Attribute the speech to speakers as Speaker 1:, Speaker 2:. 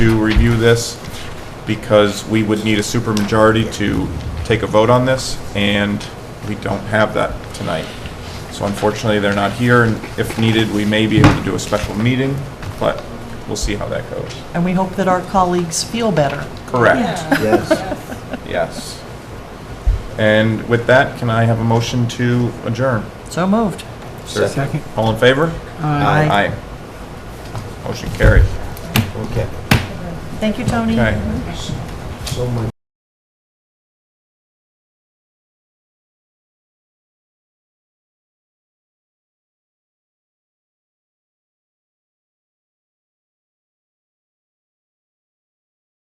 Speaker 1: to review this because we would need a supermajority to take a vote on this, and we don't have that tonight. So unfortunately, they're not here, and if needed, we may be able to do a special meeting, but we'll see how that goes.
Speaker 2: And we hope that our colleagues feel better.
Speaker 1: Correct,
Speaker 3: Yes.
Speaker 1: yes. And with that, can I have a motion to adjourn?
Speaker 2: So moved.
Speaker 3: Second.
Speaker 1: All in favor?
Speaker 2: Aye.
Speaker 1: Motion carried.
Speaker 3: Okay,
Speaker 2: Thank you, Tony.
Speaker 1: Okay.
Speaker 3: so much.